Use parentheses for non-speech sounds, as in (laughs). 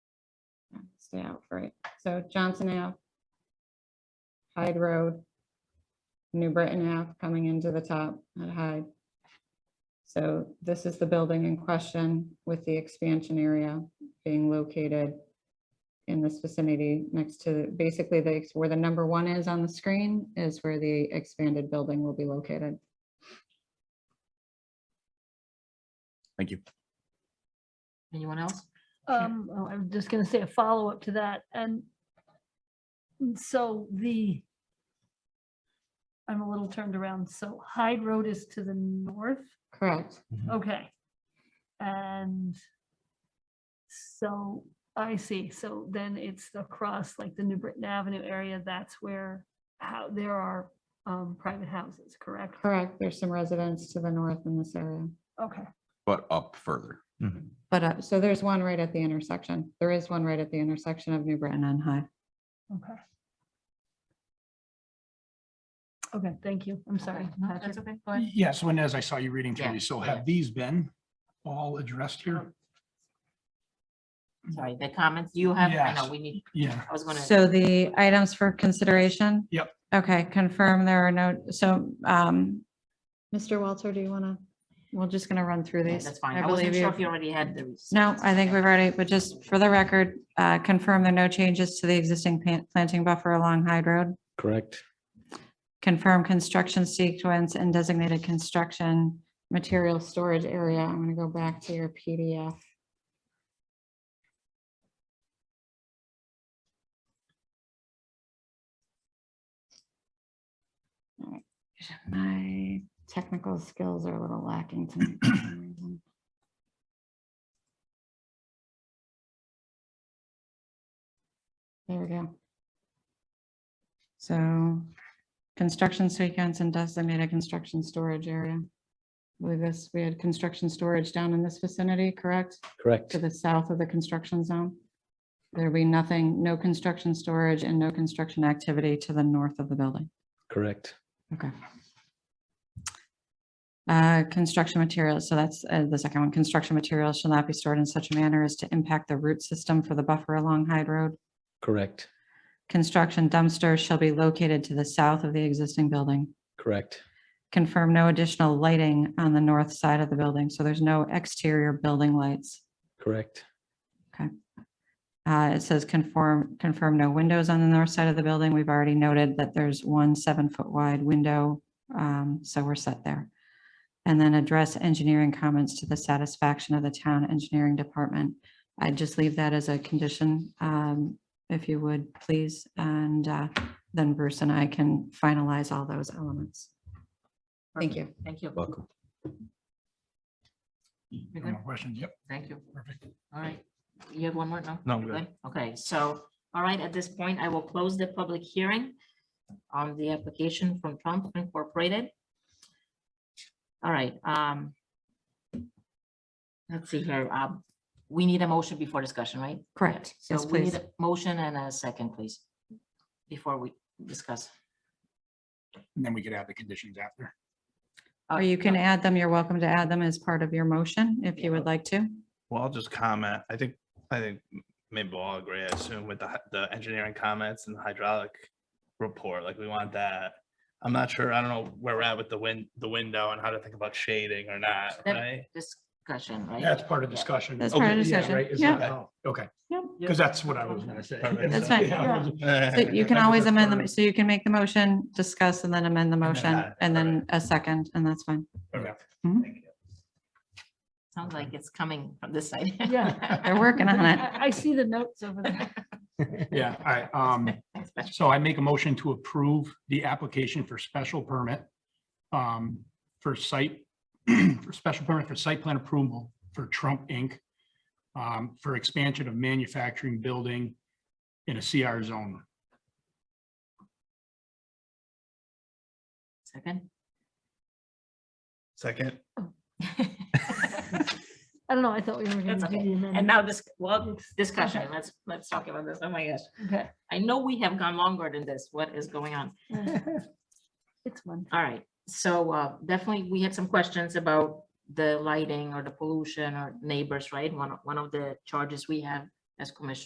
Johnson Ave, right? So Johnson Ave, Hyde Road, New Britain Ave coming into the top at Hyde. So this is the building in question with the expansion area being located in this vicinity next to, basically, the where the number one is on the screen is where the expanded building will be located. Thank you. Anyone else? Um, oh, I'm just gonna say a follow-up to that, and and so the I'm a little turned around, so Hyde Road is to the north, Correct. okay. And so, I see, so then it's across like the New Britain Avenue area, that's where how, there are um, private houses, correct? Correct. There's some residents to the north in this area. Okay, But up further. But, uh, so there's one right at the intersection. There is one right at the intersection of New Britain and High. okay. Okay, thank you, I'm sorry. No, Patrick. That's okay, go ahead. Yes, and as I saw you reading Yeah, through these, so yeah. Oh. have these been all addressed here? Sorry, the comments you have, I know Yes. we need, Yeah, I was gonna. Mm-hmm. So the items for consideration? Yep. Okay, confirm there are no, so, um. Mr. Walter, do you want to? We're just going to run through yeah, these. That's fine. I believe wasn't you- sure if you already had the. No, I think we've already, but just for the record, uh, confirm there are no changes to the existing pan- planting buffer along Hyde Road. Correct. Confirm construction sequence and designated construction material storage area. I'm going to go back to your PDF. All right, My technical skills are a little lacking tonight. for some reason. There we go. So construction sequence and designated construction storage area. I believe this, we had construction storage down in this vicinity, correct? Correct. To the south of the construction zone. There'll be nothing, no construction storage and no construction activity to the north of the building. Correct. Okay. Uh, Construction materials, so that's uh, the second one. Construction materials shall not be stored in such a manner as to impact the root system for the buffer along Hyde Road. Correct. Construction dumpsters shall be located to the south of the existing building. Correct. Confirm no additional lighting on the north side of the building, so there's no exterior building lights. Correct. Uh, it says conform, confirm no windows on the north side of the building. We've already noted that there's one seven foot wide window. Um, so we're set there. And then address engineering comments to the satisfaction of the town engineering department. I'd just leave that as a condition, um, if you would, please. And, uh, then Bruce and I can finalize all those elements. Thank you. Thank you. Welcome. You're no good? more questions, yep, Thank you. perfect. All right. You have one more? No? No, I'm You're good. Okay, so, all right, at this point, I will close the public hearing on the application from Trump Incorporated. All right, um. Let's see here, um, we need a motion before discussion, right? Correct. So Yes, we need please. a motion and a second, please, before we discuss. And then we could add the conditions after. Uh, Or Oh, you can add them. You're welcome to add them as part of your motion if you would like to. Well, I'll just comment. I think, I think m- maybe we'll all agree, I assume with the, hy- the engineering comments and the hydraulic report, like we want that. I'm not sure, I don't know where we're at with the wind, the window and how to think about shading or not, That- right? Discussion, right? That's part of Yeah. discussion. That's part of Okay, yeah, discussion, right, is yeah. that how- Okay, Yep. because that's what I was gonna say. Perfect. That's fine. (laughs) Yeah. So You can That was always a amend them. third. So you can make the motion, discuss, and then amend the motion, that, and then correct. a second, and that's fine. Perfect. Mhm. Thank you. Sounds like it's coming from this (laughs) side. (laughs) Yeah. They're working on it. I I see the notes over there. Yeah, all right, um, (laughs) Thanks, Patrick. So I make a motion to approve the application for special permit um, for site, (clears throat) for special permit for site plan approval for Trump Inc. um, for expansion of manufacturing building in a CR zone. (laughs) Second. (laughs) Second, I don't know, I thought we were That's gonna do okay. the And amendment. now this, well, discussion, let's, let's talk about this. Oh my gosh. Okay, I know we have gone longer than this. What is going on? It's one. All right, so uh, definitely, we had some questions about the lighting or the pollution or neighbors, right? One, of- one of the charges we have as commissioners